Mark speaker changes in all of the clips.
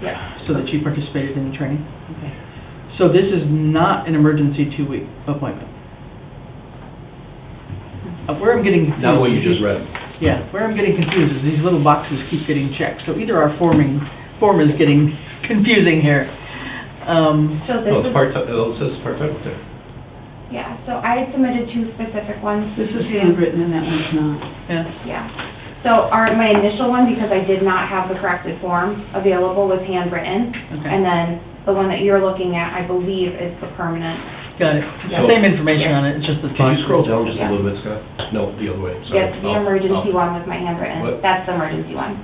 Speaker 1: Yeah.
Speaker 2: So that she participated in the training?
Speaker 1: Okay.
Speaker 2: So this is not an emergency two-week appointment? Uh, Where I'm getting confused.
Speaker 3: Not what you
Speaker 2: is
Speaker 3: just
Speaker 2: these-
Speaker 3: read.
Speaker 2: Yeah, where I'm getting confused is these little boxes keep getting checked, so either our forming, form is getting confusing here. Um,
Speaker 1: So
Speaker 3: Oh,
Speaker 1: this
Speaker 3: it's
Speaker 1: is,
Speaker 3: part, it says part-time up there.
Speaker 1: yeah, so I had submitted two specific ones.
Speaker 4: This is handwritten and that one's not.
Speaker 2: yeah,
Speaker 1: Yeah. So our, my initial one, because I did not have the corrected form available, was handwritten. And
Speaker 2: okay,
Speaker 1: then the one that you're looking at, I believe, is the permanent.
Speaker 2: got it. It's the
Speaker 1: So-
Speaker 2: same information on it, it's just the
Speaker 3: Can
Speaker 2: box.
Speaker 3: you scroll down just a little bit, Scott? No, the other way, sorry.
Speaker 1: Yep, the
Speaker 3: Up,
Speaker 1: emergency
Speaker 3: up.
Speaker 1: one was my handwritten.
Speaker 3: What?
Speaker 1: That's the emergency one.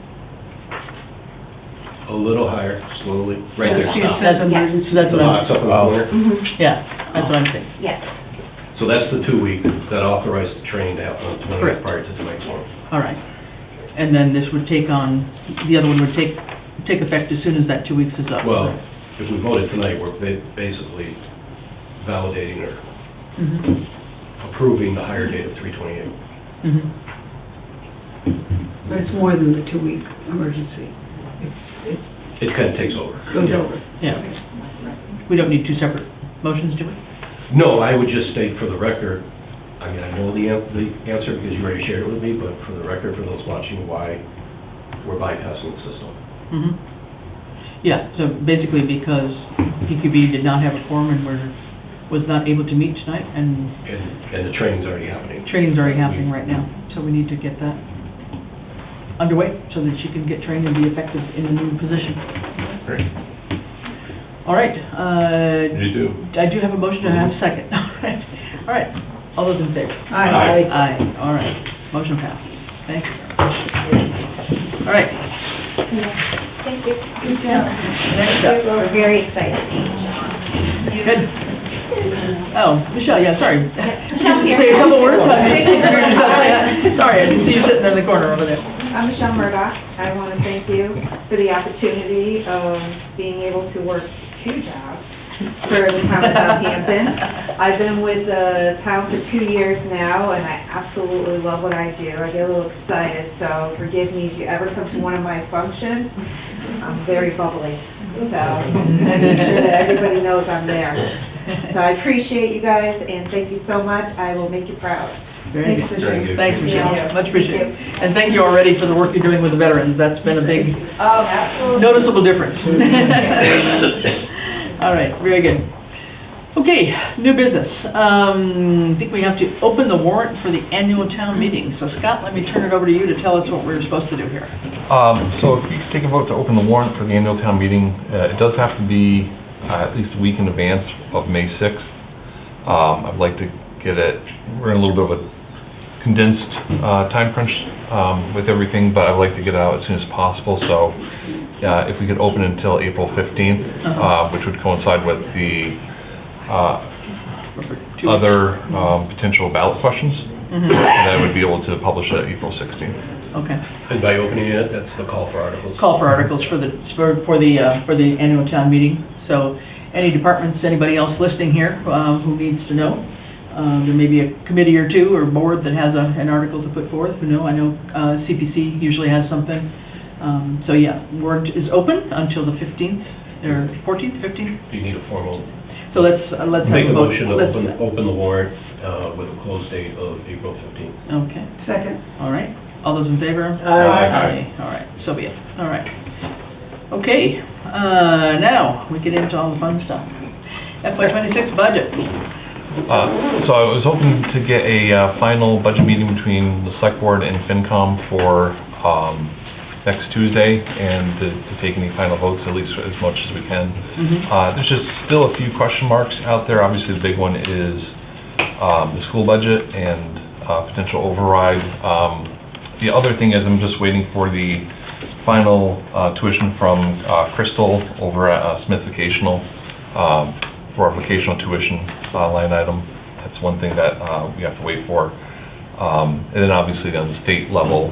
Speaker 3: A little higher, slowly, right there, Ah,
Speaker 4: See, it
Speaker 3: stop.
Speaker 4: says
Speaker 2: That's-
Speaker 4: emergency.
Speaker 2: so that's
Speaker 3: The
Speaker 2: what I'm-
Speaker 3: box up in the
Speaker 5: Oh.
Speaker 3: corner.
Speaker 1: Mhm,
Speaker 2: Yeah, that's what I'm saying.
Speaker 1: Yeah,
Speaker 3: So that's the two-week that authorized the training to happen on the
Speaker 2: Correct.
Speaker 3: twentieth prior to the next one.
Speaker 1: yes.
Speaker 2: All right. And then this would take on, the other one would take, take effect as soon as that two weeks is up.
Speaker 3: Well, if we voted tonight, we're ba- basically validating or
Speaker 2: Mhm,
Speaker 4: Mm-hmm.
Speaker 3: approving the higher date of three twenty-eight.
Speaker 2: mhm.
Speaker 4: But it's more than the two-week emergency.
Speaker 3: It kind of takes over.
Speaker 4: Goes over.
Speaker 2: Yeah, we don't need two separate motions, do we?
Speaker 3: No, I would just state for the record, I mean, I know the, an- the answer because you already shared it with me, but for the record, for those watching, why we're bypassing the system.
Speaker 2: Mhm. Yeah, so basically because PQB did not have a quorum and were, was not able to meet tonight, and
Speaker 3: And, and the training's already happening.
Speaker 2: training's already happening right now, so we need to get that underway so that she can get trained and be effective in the new position.
Speaker 3: Great.
Speaker 2: All right, uh,
Speaker 5: You do.
Speaker 2: I do have a motion, to have a second? All right, all right, all those in favor?
Speaker 4: Aye.
Speaker 2: Aye, all right, motion passes, thank you. All right,
Speaker 1: Thank you.
Speaker 2: next up,
Speaker 1: We're very excited.
Speaker 2: good. Oh, Michelle, yeah, sorry.
Speaker 1: Michelle's here.
Speaker 2: Say a couple words, I just introduced yourself, say hi. Sorry, I didn't see you sitting in the corner over there.
Speaker 6: I'm Michelle Murdock. I want to thank you for the opportunity of being able to work two jobs for the town of Southampton. I've been with the town for two years now, and I absolutely love what I do. I get a little excited, so forgive me if you ever come to one of my functions. I'm very bubbly, so I make sure that everybody knows I'm there. So I appreciate you guys, and thank you so much. I will make you proud.
Speaker 2: Very
Speaker 4: Thanks,
Speaker 2: good.
Speaker 4: Michelle.
Speaker 3: Very good.
Speaker 2: Thanks,
Speaker 6: Yeah.
Speaker 2: Michelle, much appreciated.
Speaker 6: Thank
Speaker 2: And thank you already for the work you're doing with the veterans, that's been a big,
Speaker 6: Oh, absolutely.
Speaker 2: noticeable difference. All right, very good. Okay, new business. Um, I think we have to open the warrant for the annual town meeting. So Scott, let me turn it over to you to tell us what we're supposed to do here.
Speaker 5: Um, So if you could take a vote to open the warrant for the annual town meeting, uh, it does have to be uh, at least a week in advance of May 6th. Um, I'd like to get it, we're in a little bit of a condensed uh, time crunch um, with everything, but I'd like to get it out as soon as possible, so uh, if we could open until April 15th,
Speaker 2: Uh-huh.
Speaker 5: uh, which would coincide with the
Speaker 2: For two weeks. Mm-hmm.
Speaker 5: other um, potential ballot questions, and then I would be able to publish it April 16th.
Speaker 2: Okay.
Speaker 3: And by opening it, that's the call for articles.
Speaker 2: Call for articles for the, for for the, uh, for the annual town meeting. So any departments, anybody else listening here uh, who needs to know, uh, there may be a committee or two or board that has a- an article to put forth. You know, I know uh, CPC usually has something. Um, So yeah, warrant is open until the 15th, or 14th, 15th?
Speaker 3: You need a formal,
Speaker 2: So let's, uh, let's have
Speaker 3: make
Speaker 2: a
Speaker 3: a
Speaker 2: vote.
Speaker 3: motion to
Speaker 2: Let's-
Speaker 3: open, open the warrant uh, with a close date of April fifteenth.
Speaker 2: Okay,
Speaker 4: Second.
Speaker 2: all right. All those in favor?
Speaker 3: Aye.
Speaker 2: All right, so be it. All right. Okay, uh, now we get into all the fun stuff. FY twenty-six budget.
Speaker 5: Uh, So I was hoping to get a uh, final budget meeting between the select board and FinCom for um, next Tuesday and to to take any final votes, at least as much as we can. Uh, There's just still a few question marks out there. Obviously, the big one is um, the school budget and uh, potential override. Um, The other thing is I'm just waiting for the final uh, tuition from uh, Crystal over at uh, Smith Vocational um, for our vocational tuition uh, line item. That's one thing that uh, we have to wait for. Um, And then obviously on the state level,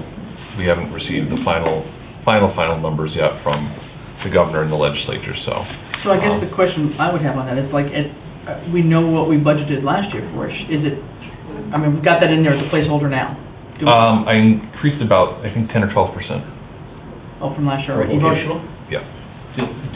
Speaker 5: we haven't received the final, final, final numbers yet from the governor and the legislature, so.
Speaker 2: So I guess the question I would have on that is like, it, uh, we know what we budgeted last year for. Is it, I mean, we've got that in there as a placeholder now. Do we-
Speaker 5: Um, I increased about, I think, 10 or 12%.
Speaker 2: Oh, from last year
Speaker 3: For
Speaker 2: already. You've already-
Speaker 3: vocational?
Speaker 5: Yeah. Did-